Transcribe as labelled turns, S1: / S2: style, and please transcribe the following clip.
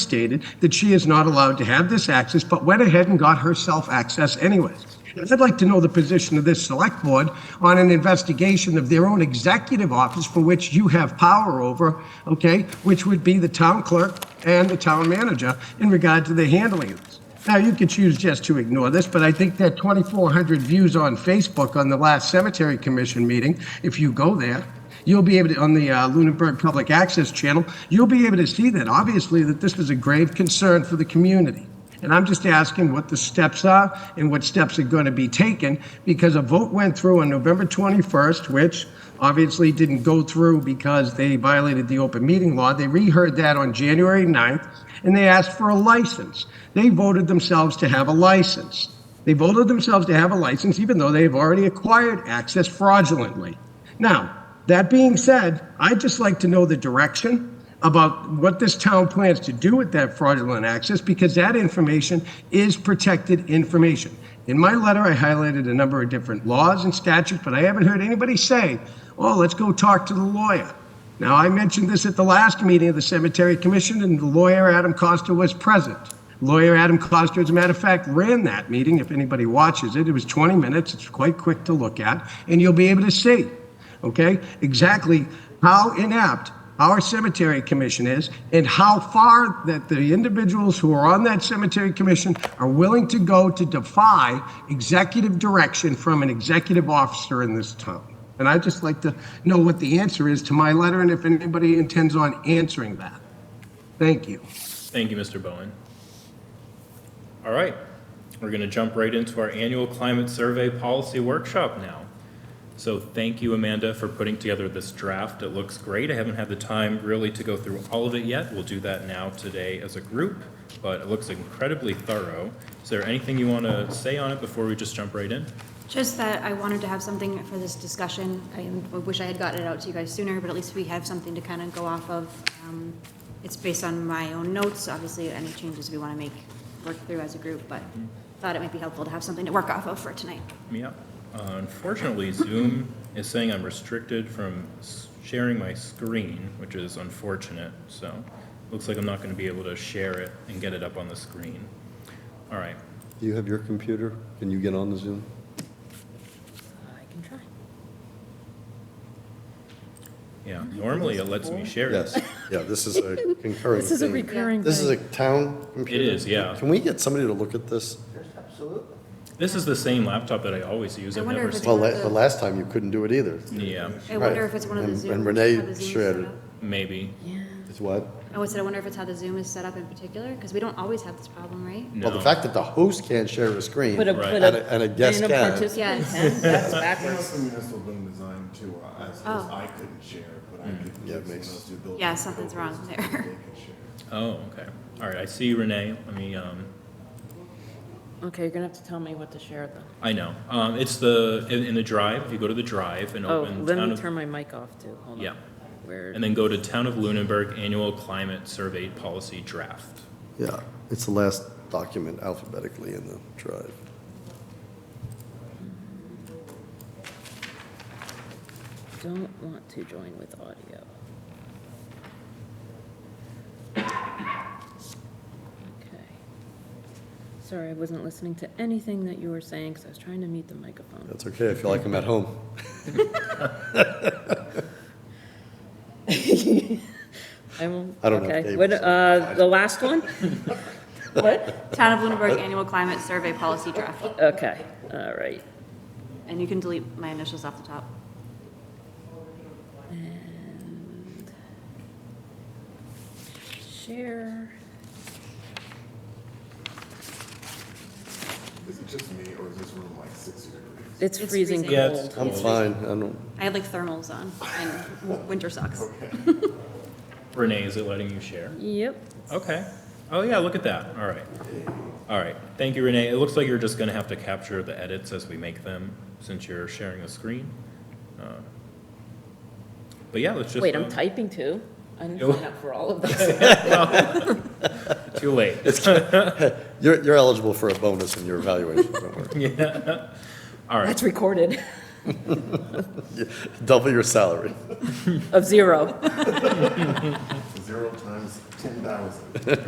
S1: stated that she is not allowed to have this access, but went ahead and got herself access anyways. And I'd like to know the position of this select board on an investigation of their own executive office for which you have power over, okay, which would be the town clerk and the town manager in regard to the handling of this. Now, you can choose just to ignore this, but I think that 2,400 views on Facebook on the last cemetery commission meeting, if you go there, you'll be able to, on the uh, Lunenburg Public Access Channel, you'll be able to see that, obviously, that this is a grave concern for the community. And I'm just asking what the steps are and what steps are going to be taken, because a vote went through on November 21st, which obviously didn't go through because they violated the open meeting law. They reheard that on January 9th, and they asked for a license. They voted themselves to have a license. They voted themselves to have a license, even though they have already acquired access fraudulently. Now, that being said, I'd just like to know the direction about what this town plans to do with that fraudulent access, because that information is protected information. In my letter, I highlighted a number of different laws and statutes, but I haven't heard anybody say, oh, let's go talk to the lawyer. Now, I mentioned this at the last meeting of the Cemetery Commission, and the lawyer, Adam Costa, was present. Lawyer Adam Costa, as a matter of fact, ran that meeting. If anybody watches it, it was 20 minutes. It's quite quick to look at, and you'll be able to see, okay, exactly how inept our cemetery commission is and how far that the individuals who are on that cemetery commission are willing to go to defy executive direction from an executive officer in this town. And I'd just like to know what the answer is to my letter and if anybody intends on answering that. Thank you.
S2: Thank you, Mr. Bowen. All right, we're going to jump right into our annual climate survey policy workshop now. So thank you, Amanda, for putting together this draft. It looks great. I haven't had the time really to go through all of it yet. We'll do that now today as a group, but it looks incredibly thorough. Is there anything you want to say on it before we just jump right in?
S3: Just that I wanted to have something for this discussion. I am- I wish I had gotten it out to you guys sooner, but at least we have something to kind of go off of. Um, It's based on my own notes, obviously, any changes we want to make, work through as a group, but thought it might be helpful to have something to work off of for tonight.
S2: Yeah. Uh, Unfortunately, Zoom is saying I'm restricted from s- sharing my screen, which is unfortunate, so looks like I'm not going to be able to share it and get it up on the screen. All right.
S4: Do you have your computer? Can you get on the Zoom?
S2: Yeah, normally it lets me share it.
S4: Yes, yeah, this is a concurring
S5: This is a
S4: thing.
S5: recurring
S4: This is
S5: thing.
S4: a town computer?
S2: is, yeah.
S4: Can we get somebody to look at this?
S2: This is the same laptop that I always use.
S3: I
S2: I've
S3: wonder
S2: never
S3: if
S2: seen.
S4: Well, la- the last time you couldn't do it either.
S2: Yeah,
S3: I wonder
S4: Right.
S3: if it's one of the
S4: And-
S3: Zoom.
S4: and
S3: how
S4: Renee
S3: the Zoom is
S4: shared
S3: set
S4: it.
S3: up. Oh,
S2: maybe.
S4: It's what?
S3: I would say, I wonder if it's how the Zoom is set up in particular, because we don't always have this problem, right?
S4: Well, the
S2: No.
S4: fact that the host can't share a screen,
S5: But a,
S4: and
S2: Right.
S5: but
S4: a
S5: a.
S4: and a guest
S5: and a
S4: can.
S5: participant
S3: Yes.
S5: can, that's
S6: That's
S5: backwards.
S6: the municipal building design too, uh, as, as
S3: Oh.
S6: I couldn't share, but I could.
S4: Mm. Yeah, it
S6: someone
S4: makes-
S6: else do building
S3: Yeah, something's
S6: codes
S3: wrong
S6: and
S3: there.
S6: They can share.
S2: Oh, okay. All right, I see you, Renee. Let me, um,
S5: Okay, you're gonna have to tell me what to share then.
S2: I know. Um, it's the, in, in the drive, if you go to the drive and
S5: Oh,
S2: open
S5: let
S2: Town
S5: me
S2: of-
S5: turn my mic off too, hold on.
S2: Yeah.
S5: Where,
S2: and then go to Town of Lunenburg Annual Climate Survey Policy Draft.
S4: Yeah, it's the last document alphabetically in the drive.
S5: don't want to join with audio. Okay. Sorry, I wasn't listening to anything that you were saying, because I was trying to mute the microphone.
S4: That's okay, I feel like I'm at home.
S5: I won't,
S4: I don't know if
S5: okay,
S4: Dave
S5: what,
S4: was-
S5: uh, the last one? What?
S3: Town of Lunenburg Annual Climate Survey Policy Draft,
S5: Okay, all right.
S3: and you can delete my initials off the top.
S5: And share.
S6: Is it just me, or is this room like sixty degrees?
S5: It's
S3: It's
S5: freezing
S3: freezing. Yeah,
S5: cold.
S4: I'm fine, I don't,
S3: I had like thermals on and w- winter socks.
S2: Renee, is it letting you share?
S5: Yep.
S2: Okay. Oh, yeah, look at that. All right. All right. Thank you, Renee. It looks like you're just going to have to capture the edits as we make them since you're sharing the screen. Uh, But yeah, let's just.
S5: Wait, I'm
S2: uh,
S5: typing too. I
S2: Yo.
S5: didn't sign up for all of this.
S2: Too late.
S4: you're, you're eligible for a bonus in your evaluation, don't worry.
S2: All right.
S5: That's recorded
S4: Double your salary.
S5: of zero.
S6: Zero times ten thousand.